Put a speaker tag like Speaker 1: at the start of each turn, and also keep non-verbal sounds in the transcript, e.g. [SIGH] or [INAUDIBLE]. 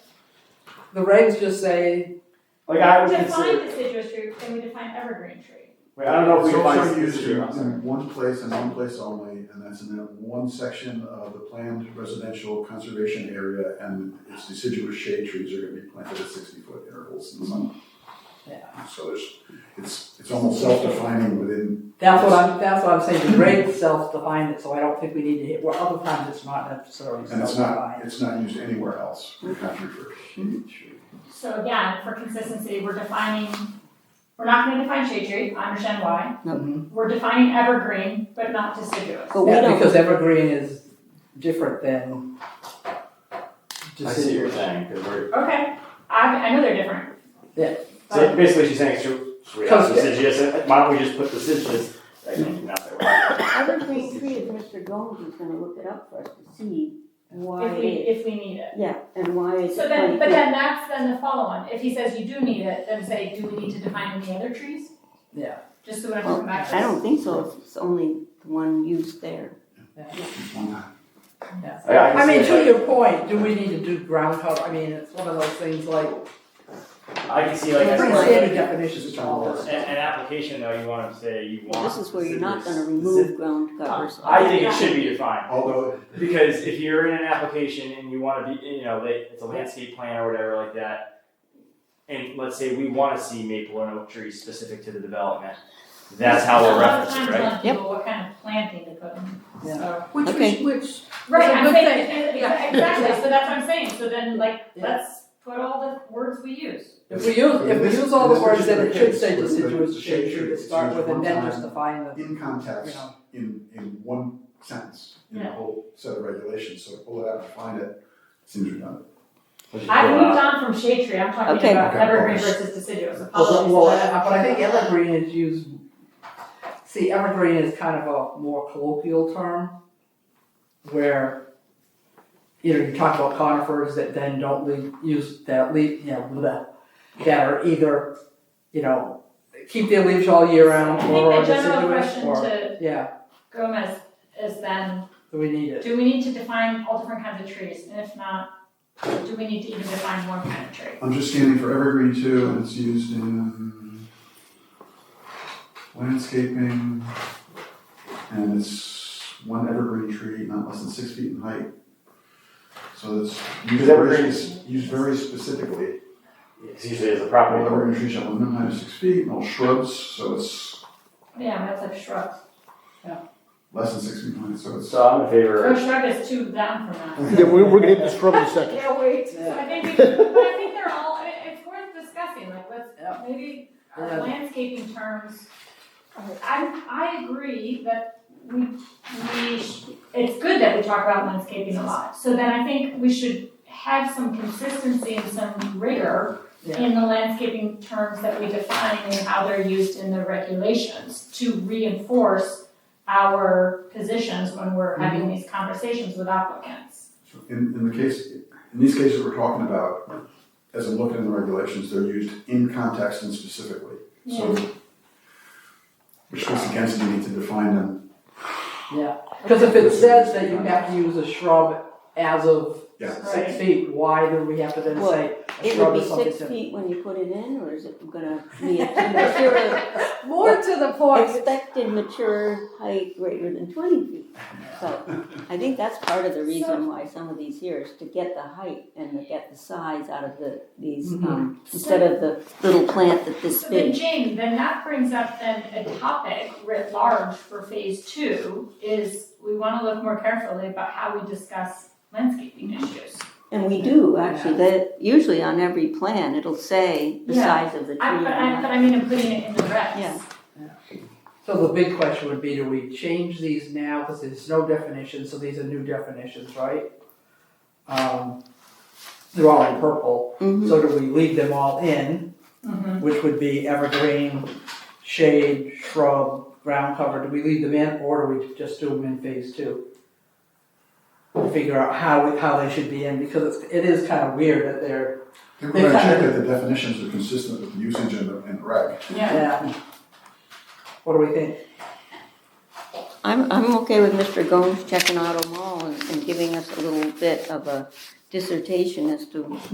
Speaker 1: The regs just say,
Speaker 2: Like I would consider,
Speaker 3: Define deciduous tree, can we define evergreen tree?
Speaker 2: wait, I don't know if we
Speaker 4: It's
Speaker 2: define
Speaker 4: also
Speaker 2: this
Speaker 4: used
Speaker 2: here.
Speaker 4: in, in one place and one place only, and that's in that one section of the planned residential conservation area, and its deciduous shade trees are gonna be planted at sixty-foot intervals in the summer. Yeah. So there's, it's, it's almost self-defining within,
Speaker 1: that's what I'm, that's what I'm saying, the regs self-define it, so I don't think we need to hit, well, other times it's not necessarily
Speaker 4: and it's not,
Speaker 1: self-defined.
Speaker 4: it's not used anywhere else in the country for shade trees.
Speaker 3: So again, for consistency, we're defining, we're not gonna define shade tree, I understand why.
Speaker 1: Mhm.
Speaker 3: We're defining evergreen, but not deciduous.
Speaker 5: But we
Speaker 1: Yeah,
Speaker 5: don't,
Speaker 1: because evergreen is different than
Speaker 2: I see what you're
Speaker 1: deciduous.
Speaker 2: saying, 'cause we're-
Speaker 3: Okay, I, I know they're different.
Speaker 1: Yeah.
Speaker 2: so basically she's saying, should, should we have
Speaker 1: Cause-
Speaker 2: deciduous, and why don't we just put deciduous? I think not that way.
Speaker 5: evergreen tree is Mr. Gold is gonna look it up for us to see why
Speaker 3: If we,
Speaker 5: it,
Speaker 3: if we need it.
Speaker 5: yeah, and why it's.
Speaker 3: So then, but
Speaker 5: like-
Speaker 3: then that's then the follow-on, if he says you do need it, then say, do we need to define any other trees?
Speaker 1: Yeah.
Speaker 3: Just so we don't have to come back to
Speaker 5: I
Speaker 3: this.
Speaker 5: don't think so, if it's only the one used there.
Speaker 4: It's one
Speaker 2: I, I
Speaker 1: I
Speaker 2: can
Speaker 1: mean,
Speaker 2: see
Speaker 1: to
Speaker 2: it,
Speaker 1: your point, do we need to do ground cover, I mean, it's one of those things like,
Speaker 2: like- I can see like as
Speaker 1: pretty
Speaker 2: far as
Speaker 1: standard
Speaker 2: like,
Speaker 1: definitions of all this.
Speaker 2: an, an application though, you wanna say you want
Speaker 5: Well, This is where you're not gonna
Speaker 2: deciduous-
Speaker 5: remove ground covers.
Speaker 2: I think it should be defined.
Speaker 4: Although,
Speaker 2: Because if you're in an application and you want to be, you know, like, it's a landscape plan or whatever like that, and let's say we want to see maple and oak trees specific to the development, that's how we're referencing,
Speaker 3: A lot of
Speaker 2: right?
Speaker 3: times on people, what kind of planting they put in,
Speaker 1: Yeah.
Speaker 3: so.
Speaker 6: Which,
Speaker 5: Okay.
Speaker 6: which, which,
Speaker 3: Right,
Speaker 6: It's a
Speaker 3: I'm
Speaker 6: good
Speaker 3: saying,
Speaker 6: Yeah.
Speaker 3: exactly, so that's what I'm saying, so then like,
Speaker 1: Yeah.
Speaker 3: let's put all the words we use.
Speaker 1: If we use, if we
Speaker 4: This-
Speaker 1: use all the
Speaker 4: this
Speaker 1: words, then it should
Speaker 4: particular
Speaker 1: say
Speaker 4: case with the-
Speaker 1: deciduous
Speaker 4: the
Speaker 1: shade
Speaker 4: shade
Speaker 1: tree
Speaker 4: tree,
Speaker 1: to
Speaker 4: it's
Speaker 1: start
Speaker 4: used
Speaker 1: with and
Speaker 4: one
Speaker 1: then
Speaker 4: time
Speaker 1: just define the,
Speaker 4: in
Speaker 1: you
Speaker 4: context,
Speaker 1: know.
Speaker 4: in, in one sentence, in the
Speaker 3: Yeah.
Speaker 4: whole set of regulations, so to pull it out and find it, seems redundant.
Speaker 3: I've moved on from shade tree, I'm talking
Speaker 5: Okay.
Speaker 3: about
Speaker 4: Okay.
Speaker 3: evergreen versus deciduous,
Speaker 1: Well,
Speaker 3: apologies.
Speaker 1: Oh, well, I- but I think evergreen is used, see, evergreen is kind of a more colloquial term where, you know, you talk about conifers that then don't leave, use that leaf, you know, bleh, that are either, you know, keep their leaves all year round
Speaker 3: I
Speaker 1: or are
Speaker 3: think the general
Speaker 1: deciduous
Speaker 3: question
Speaker 1: or,
Speaker 3: to
Speaker 1: yeah,
Speaker 3: Gomez is then,
Speaker 1: do we need it?
Speaker 3: do we need to define all different kinds of trees, and if not, do we need to even define one kind of tree?
Speaker 4: I'm just scanning for evergreen too, and it's used in um, landscaping, and it's one evergreen tree, not less than six feet in height. So it's used
Speaker 2: Because evergreen
Speaker 4: very, used very specifically.
Speaker 2: It's usually as a
Speaker 4: All
Speaker 2: property.
Speaker 4: evergreen trees shall have a minimum height of six feet, and all shrubs, so it's
Speaker 3: Yeah, that's like shrubs,
Speaker 4: less than six feet in height, so it's.
Speaker 2: So I'm in favor
Speaker 3: so
Speaker 2: of,
Speaker 3: shrub is too down from that.
Speaker 7: Yeah, we're, we're gonna get the shrub in a second.
Speaker 3: Yeah, wait, so I think, we- but I think they're all, I- it's worth discussing, like,
Speaker 1: Yeah.
Speaker 3: let's, maybe
Speaker 1: Yeah.
Speaker 3: our landscaping terms. I, I agree that we, we, sh- it's good that we talk about landscaping a lot, so then I think we should have some consistency and some rigor in the landscaping terms that we define and how they're used in the regulations to reinforce our positions when we're having
Speaker 1: Mm-hmm.
Speaker 3: these conversations with applicants.
Speaker 4: In, in the case, in these cases we're talking about, as I'm looking in the regulations, they're used in context and specifically. So, which goes against the need to define them.
Speaker 1: Because if it says that you have to use a shrub as of
Speaker 4: Yeah.
Speaker 1: six feet, why do we have to then
Speaker 5: Well,
Speaker 1: say a
Speaker 5: It
Speaker 1: shrub
Speaker 5: would
Speaker 1: is
Speaker 5: be
Speaker 1: something
Speaker 5: six
Speaker 1: different?
Speaker 5: feet when you put it in, or is it gonna
Speaker 3: [LAUGHS]
Speaker 5: be a mature,
Speaker 1: More to the point.
Speaker 5: expected mature height greater than twenty feet?
Speaker 4: [LAUGHS]
Speaker 5: So, I think that's part of the reason why some of these here is to get the height and to get the size out of the, these,
Speaker 3: Mm-hmm.
Speaker 5: um, instead of the little plant that this
Speaker 3: So then,
Speaker 5: big.
Speaker 3: Jane, then that brings up then a topic writ large for phase two is we want to look more carefully about how we discuss landscaping issues.
Speaker 5: And we do, actually, that, usually on every plan, it'll say the
Speaker 3: Yeah.
Speaker 5: size of the tree.
Speaker 3: I, but I, but I mean, I'm putting it in the regs.
Speaker 5: Yeah.
Speaker 1: So the big question would be, do we change these now, because there's no definition, so these are new definitions, right? Um, they're all in purple,
Speaker 5: Mhm.
Speaker 1: so do we leave them all in,
Speaker 3: Mhm.
Speaker 1: which would be evergreen, shade, shrub, ground cover, do we leave them in, or do we just do them in phase two? Figure out how, how they should be in, because it's- it is kind of weird that they're,
Speaker 4: I think when I check that the definitions are consistent with the usage in the, in the reg.
Speaker 3: Yeah.
Speaker 1: yeah. What do we think?
Speaker 5: I'm, I'm okay with Mr. Gomes checking out them all and, and giving us a little bit of a dissertation as to